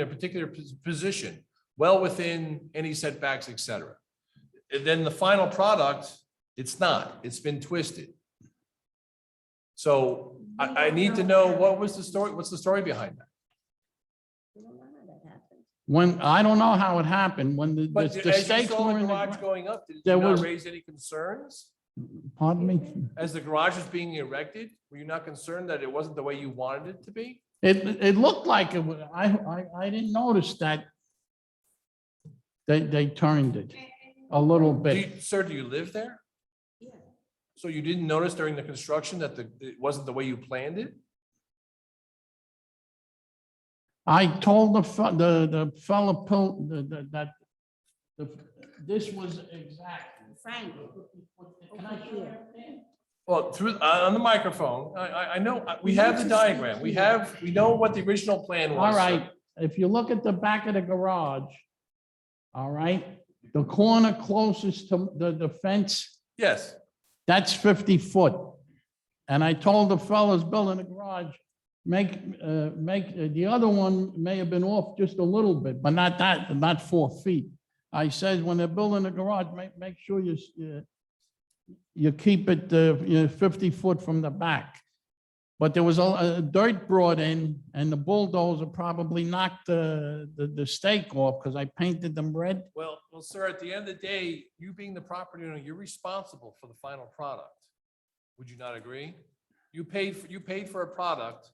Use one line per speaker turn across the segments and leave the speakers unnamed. in a particular pos- position, well within any setbacks, et cetera. And then the final product, it's not, it's been twisted. So I, I need to know what was the story, what's the story behind that?
We don't know how that happened.
When, I don't know how it happened, when the,
But
the- the
as you
stakes
saw
were
the
in the,
garage
gra-
going up, did you
There
not
was-
raise any concerns?
pardon me?
As the garage was being erected, were you not concerned that it wasn't the way you wanted it to be?
It, it looked like it was, I, I, I didn't notice that they, they turned it a little
Do
bit.
you- Sir, do you live there?
Yeah.
So you didn't notice during the construction that the, it wasn't the way you planned it?
I told the, fe- the, the fellow, pil- the, the, that, the, this was exact.
Frank,
Can I show you everything?
Well, through, uh, on the microphone, I, I, I know, uh, we have the diagram, we have, we know what the original plan was.
All
sir.
right, if you look at the back of the garage, all right, the corner closest to the, the fence
Yes,
That's fifty foot. And I told the fellas building the garage, make, uh, make, uh, the other one may have been off just a little bit, but not that, not four feet. I says, when they're building the garage, make, make sure you, s- you- you keep it, uh, you know, fifty foot from the back. But there was a, a dirt brought in and the bulldozer probably knocked the, the, the stake off because I painted them red.
well, well, sir, at the end of the day, you being the property owner, you're responsible for the final product. Would you not agree? You paid, for you paid for a product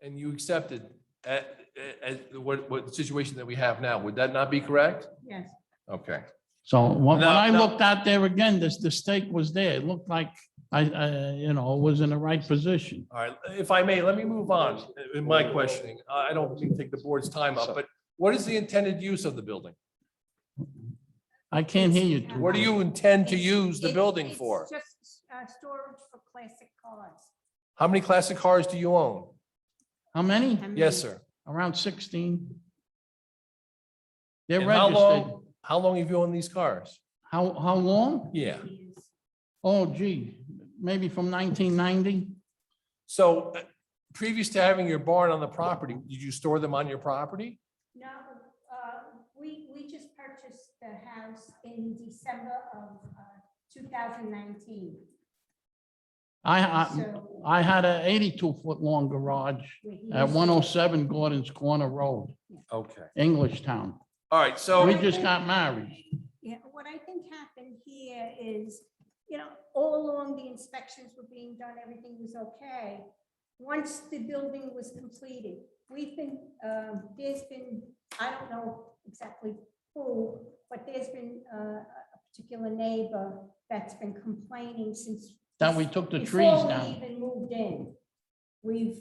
and you accepted at, at, what, what the situation that we have now. Would that not be correct?
yes.
Okay.
So when when
No,
I
no.
looked out there again, this, the stake was there. It looked like I, I, you know, was in the right position.
All right, if I may, let me move on in my questioning. I I don't mean to take the board's time up, but what is the intended use of the building?
I can't hear you. too
What do
well.
you intend to
It's-
use the
it's-
building
it's
for?
Just uh, storage for classic cars.
How many classic cars do you own?
How many?
I
Yes,
mean,
sir.
Around sixteen? They're
And how
registered.
long, how long have you owned these cars?
How, how long?
Yeah,
is-
Oh gee, maybe from nineteen ninety?
so uh, previous to having your barn on the property, did you store them on your property?
No, uh, we, we just purchased the house in December of uh, 2019.
I, I,
So
I had a eighty-two foot long garage
we-
at one oh seven Gordon's Corner Road,
Okay.
English Town.
All right,
We
so,
just got married.
Yeah, what I think happened here is, you know, all along the inspections were being done, everything was okay. Once the building was completed, we've been, um, there's been, I don't know exactly who, but there's been uh, a a particular neighbor that's been complaining since.
Then we took the
before
trees
we
down.
Even moved in. We've,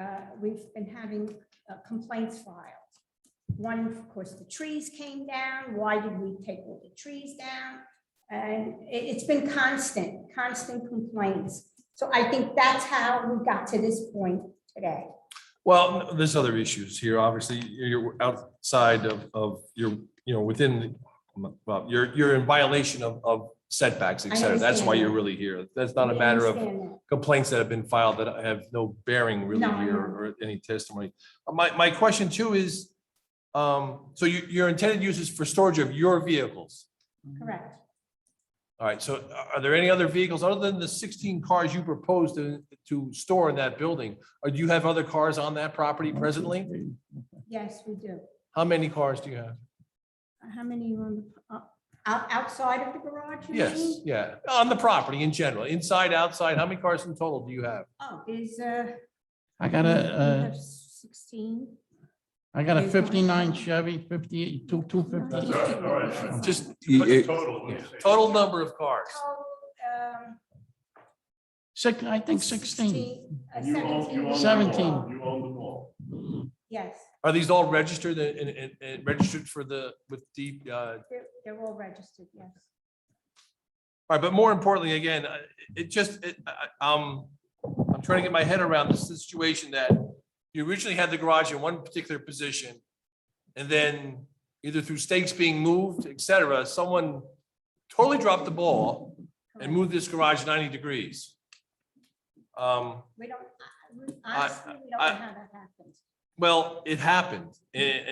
uh, we've been having uh, complaints filed. One, of course, the trees came down. Why did we take all the trees down? And it, it's been constant, constant complaints. So I think that's how we got to this point today.
well, there's other issues here. Obviously, you're outside of, of your, you know, within, well, you're, you're in violation of, of setbacks, et
I
cetera. That's why
understand.
you're really here. That's not a matter of complaints that have been filed that have no bearing really
No, I
here
know.
or any testimony. Uh, My, my question too is, um, so you, your intended use is for storage of your vehicles.
Correct.
All right, so are- are there any other vehicles other than the sixteen cars you proposed to, to store in that building? Or do you have other cars on that property presently?
Yes, we do.
How many cars do you have?
How many are on the, uh, out, outside of the garage? you
Yes,
mean?
yeah, on the property in general, inside, outside, how many cars in total do you have?
Oh, there's, uh.
I got
we
a, uh,
have Sixteen.
I got a
Here's one.
fifty-nine Chevy, fifty-eight, two, two fifty.
That's all right, all right.
Just
What's the
but
total? Let's see.
total number of cars.
Total, um,
Six, I think sixteen.
16, uh,
You own- you own them all.
17.
You own them all.
Yes,
Are these all registered and, and- and, and registered for the, with the, uh, all
they're, they're all registered, yes.
right, but more importantly, again, I- it just, it, I- I- um, I'm trying to get my head around the situation that you originally had the garage in one particular position, and then either through stakes being moved, et cetera, someone totally dropped the ball and
correct.
moved this garage ninety degrees. Um,
We don't, I- I-
I-
honestly, we don't know
I-
how that happened.
well, it happened, and,